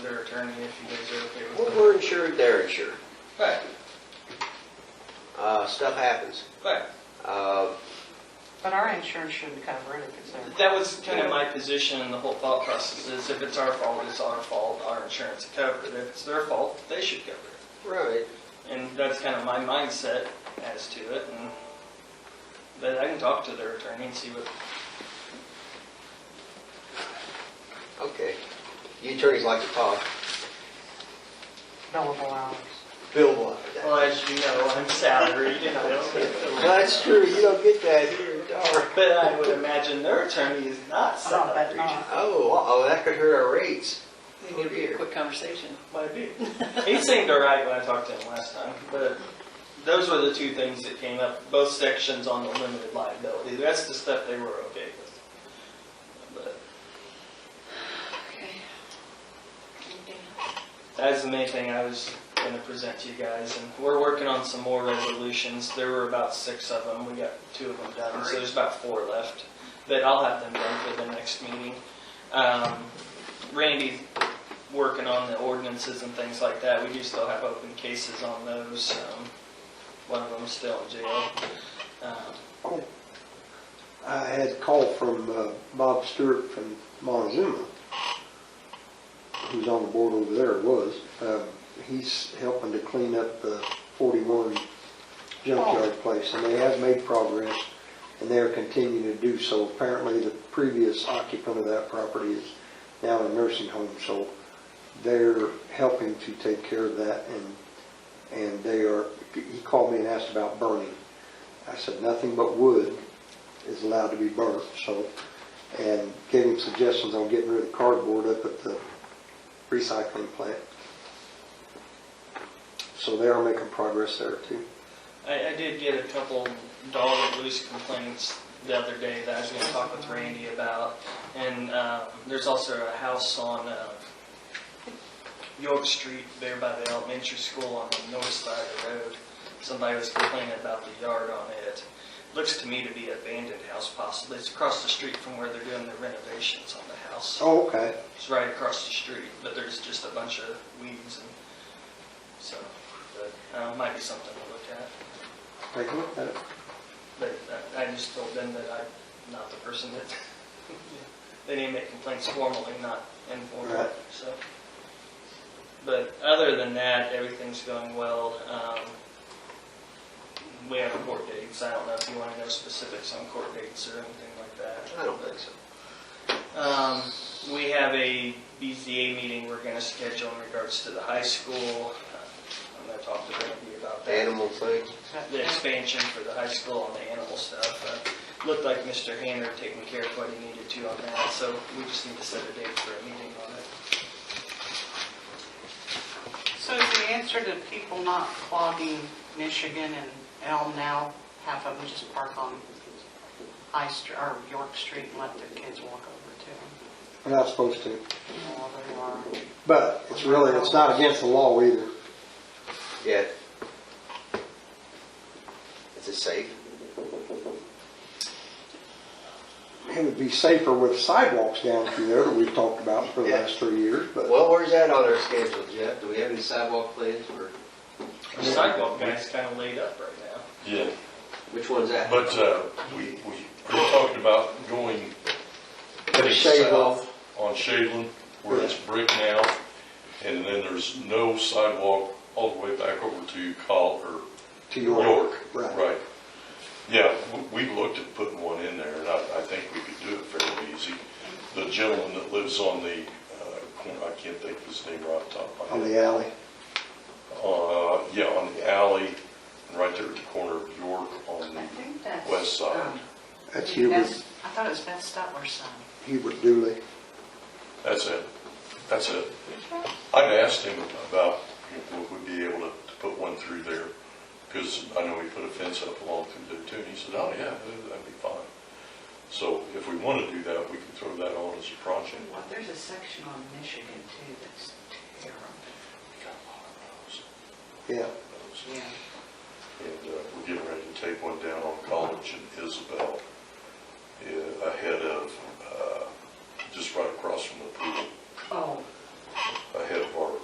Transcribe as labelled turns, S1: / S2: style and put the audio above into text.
S1: their attorney if you guys are okay
S2: We're
S1: with that.
S2: we're insured, they're insured.
S1: Right,
S2: Uh, Stuff happens.
S1: right.
S2: Uh,
S3: But our insurance shouldn't cover it if it's their.
S1: That was kind of my position and the whole thought process is if it's our fault, it's our fault, our insurance will cover it. If it's their fault, they should cover it.
S2: Right.
S1: And that's kind of my mindset as to it and, but I can talk to their attorney and see what,
S2: Okay. You attorneys like to talk.
S3: Billable hours.
S2: Bill will.
S1: well, as you know, I'm salaried and I don't get the.
S2: That's true, you don't get that here in Dar.
S1: But I would imagine their attorney is not
S3: Oh, but
S1: salaried.
S3: not.
S2: Oh, uh-oh, that could hurt our rates.
S4: It would be a quick conversation.
S1: Might be. He seemed all right when I talked to him last time, but those were the two things that came up, both sections on the limited liability. The rest of the stuff they were okay with. But
S4: Okay. Anything else?
S1: that's the main thing I was gonna present to you guys, and we're working on some more resolutions. There were about six of them, we got two of them done, so there's about four left. But I'll have them done for the next meeting. Um, Randy's working on the ordinances and things like that. We do still have open cases on those. Um, One of them's still in jail. Um,
S5: I had a call from uh, Bob Stewart from Montezuma, who's on the board over there, was. Um, He's helping to clean up the 41 junkyard place, and they have made progress, and they are continuing to do so. Apparently, the previous occupant of that property is now in a nursing home, so they're helping to take care of that, and, and they are, he called me and asked about burning. I said, nothing but wood is allowed to be burnt, so, and gave him suggestions on getting rid of cardboard up at the recycling plant. So they are making progress there too.
S1: I, I did get a couple dog loose complaints the other day that I was gonna talk with Randy about. And, uh, there's also a house on, uh, York Street there by the elementary school on the north side of the road. Somebody was complaining about the yard on it. Looks to me to be abandoned house possibly. It's across the street from where they're doing the renovations on the house.
S5: Oh, okay.
S1: It's right across the street, but there's just a bunch of weeds and, so, but, uh, might be something to look at.
S5: Take a look at it.
S1: But I- I just told them that I'm not the person that, they need to make complaints formally, not informally,
S5: Right.
S1: so. But other than that, everything's going well. Um, We have court dates, I don't know if you want to know specifics on court dates or anything like that.
S2: I don't think so.
S1: Um, we have a BZA meeting we're gonna schedule in regards to the high school. I'm gonna talk to Randy about that.
S2: Animal thing.
S1: The expansion for the high school and the animal stuff. Uh, Looked like Mr. Hanner taking care of what he needed to on that, so we just need to set a date for a meeting on it.
S3: So is the answer to people not clogging Michigan and Elm now, half of them just park on High Street, or York Street and let their kids walk over
S5: We're not supposed
S3: to
S5: to,
S3: them? Well, they are.
S5: but it's really, it's not against the law either.
S2: Yeah. Is it safe?
S5: It would be safer with sidewalks down through there that we've talked about for the last three years, but
S2: Well, where's that on our schedule, Jeff? Do we have any sidewalk plans for,
S1: The sidewalk guy's kinda laid up right now.
S6: Yeah,
S2: which one's that?
S6: but uh, we, we, we're talking about going
S5: the shade off.
S6: on Shadeland, where it's brick now, and then there's no sidewalk all the way back over to Col, or
S5: to
S6: York.
S5: Right.
S6: Right. Yeah, we- we looked at putting one in there, and I, I think we could do it fairly easy. The gentleman that lives on the, uh, corner, I can't think of his name right off the top of my
S5: On
S6: head.
S5: the alley.
S6: Uh, yeah, on the alley, right there at the corner of York on
S3: I
S6: the
S3: think that's.
S6: west side.
S3: um,
S5: That's Hubert,
S3: that's- I thought it was Beth Stutler's son.
S5: Hubert Dooley.
S6: That's it. That's it. I'd asked him about if we would be able to to put one through there, because I know he put a fence up along through there too, and he said, oh, yeah, that'd be fine. So if we want to do that, we can throw that on as a project.
S3: Well, there's a section on Michigan too that's terrible.
S6: We got a lot of
S5: Yeah,
S6: those.
S3: Yeah.
S6: And uh, we're getting ready to take one down on College and Isabel, eh, uh, ahead of, uh, just right across from the pool.
S3: Oh,